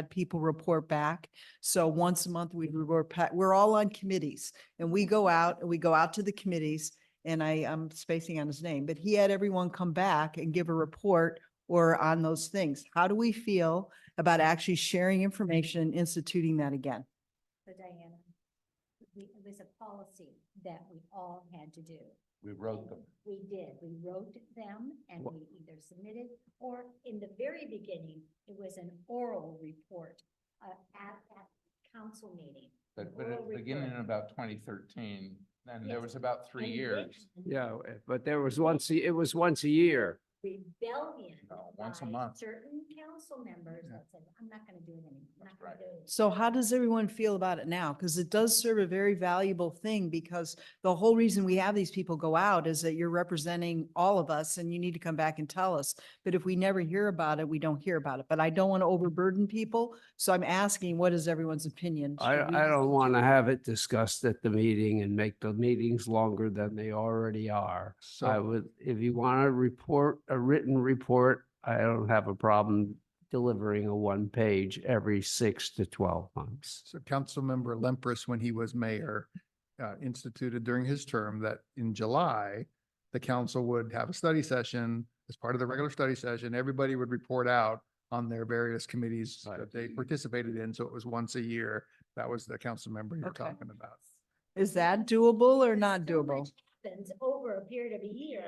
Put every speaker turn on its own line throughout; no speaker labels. had people report back. So once a month, we report, pa- we're all on committees and we go out and we go out to the committees. And I, I'm spacing on his name, but he had everyone come back and give a report or on those things. How do we feel about actually sharing information and instituting that again?
So Diana, we, it was a policy that we all had to do.
We wrote them.
We did, we wrote them and
Wha-
we either submitted, or in the very beginning, it was an oral report uh, at that council meeting.
But, but
Oral
at the beginning in
report.
about twenty thirteen, then there
Yes.
was about three years.
Yeah, eh, but there was once, a- it was once a year.
Rebellion.
No, once a
by
month.
Certain council members
Yeah.
that said, I'm not gonna do it anymore, I'm not
That's
gonna
right.
do it.
So how does everyone feel about it now? Because it does serve a very valuable thing because the whole reason we have these people go out is that you're representing all of us and you need to come back and tell us. But if we never hear about it, we don't hear about it. But I don't want to overburden people. So I'm asking, what is everyone's opinion?
I,
Should we
I
just-
don't want to have it discussed at the meeting and make the meetings longer than they already are. I
So,
would, if you want to report, a written report, I don't have a problem delivering a one page every six to 12 months.
So Councilmember Lempres, when he was mayor, uh, instituted during his term that in July, the council would have a study session. As part of the regular study session, everybody would report out on their various committees
Right.
that they participated in. So it was once a year. That was the council member you were
Okay.
talking about.
Is that doable or not
So much
doable?
Happens over a period of a year.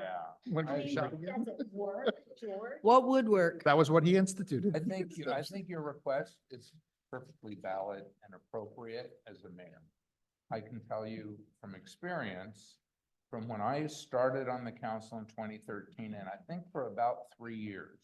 When
I
can you
mean,
shout
like,
again?
does it work, George?
What would work?
That was what he instituted.
I think, you- I
That's-
think your request is perfectly valid and appropriate as a mayor. I can tell you from experience, from when I started on the council in twenty thirteen, and I think for about three years,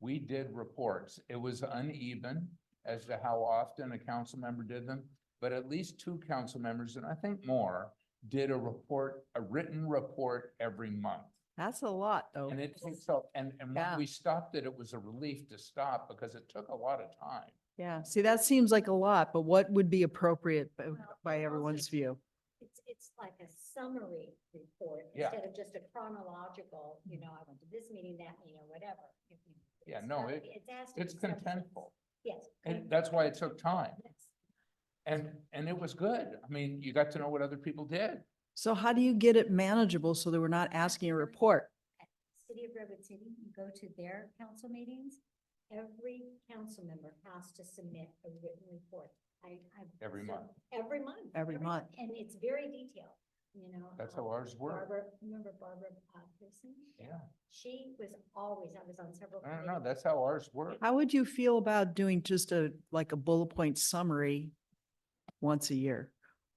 we did reports. It was uneven as to how often a council member did them, but at least two council members, and I think more, did a report, a written report every month.
That's a lot, though.
And it takes up, and, and
Yeah.
when we stopped it, it was a relief to stop because it took a lot of time.
Yeah, see, that seems like a lot, but what would be appropriate b-
Well,
by
also-
everyone's view?
It's, it's like a summary report
Yeah.
instead of just a chronological, you know, I went to this meeting, that meeting, or whatever. If you-
Yeah,
it's
no,
not-
it-
It has to be
It's
substance.
contentful.
Yes.
And that's why it took time.
Yes.
And, and it was good. I mean, you got to know what other people did.
So how do you get it manageable so that we're not asking a report?
At City of Redwood City, you go to their council meetings, every council member has to submit a written report. I, I.
Every
so-
month.
Every month.
Every month.
And it's very detailed, you know.
That's
um,
how ours worked.
Barbara, remember Barbara uh, Pearson?
Yeah.
She was always, I was on several.
I don't know.
committees.
That's how ours worked.
How would you feel about doing just a, like a bullet point summary once a year?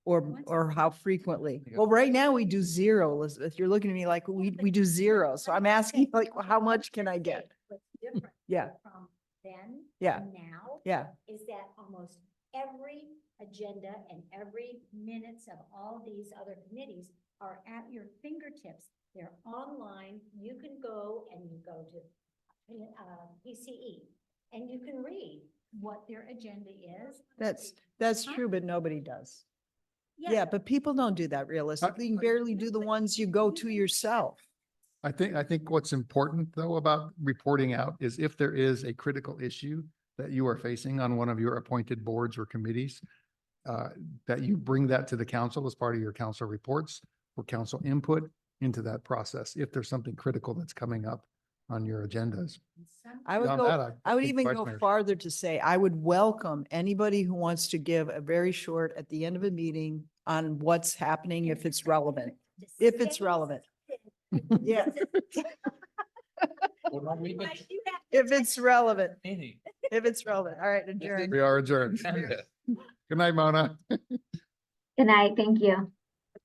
Or,
Once a
or how frequently?
Yeah.
Well, right now we do zero, Elizabeth. You're looking at me like, we, we do zero. So I'm asking like,
Okay,
how
I'm
much can I
just
get?
saying What's different
Yeah,
from then?
Yeah.
to Now?
yeah.
is that almost every agenda and every minutes of all these other committees are at your fingertips. They're online. You can go and you go to uh, PCE and you can read what their agenda is.
That's- That's true, but nobody does. Yeah,
Yeah,
but people don't do that realistically. You
I-
barely do the
but
ones you go
you
to
can-
yourself.
I think, I think what's important though about reporting out is if there is a critical issue that you are facing on one of your appointed boards or committees, uh, that you bring that to the council as part of your council reports or council input into that process, if there's something critical that's coming up on your agendas.
and some-
I would
Beyond
go
that, I
I would
think
even
vice
go
mayor-
farther to say, I would welcome anybody who wants to give a very short, at the end of a meeting, on what's happening if it's relevant.
To
If it's
stay
relevant.
consistent.
Yeah.
Well, no, we did
Otherwise you have to
If it's relevant,
meeting.
if it's relevant. All right, adjourned.
We are adjourned.
Agenda.
Good night, Mona.
Good night, thank you.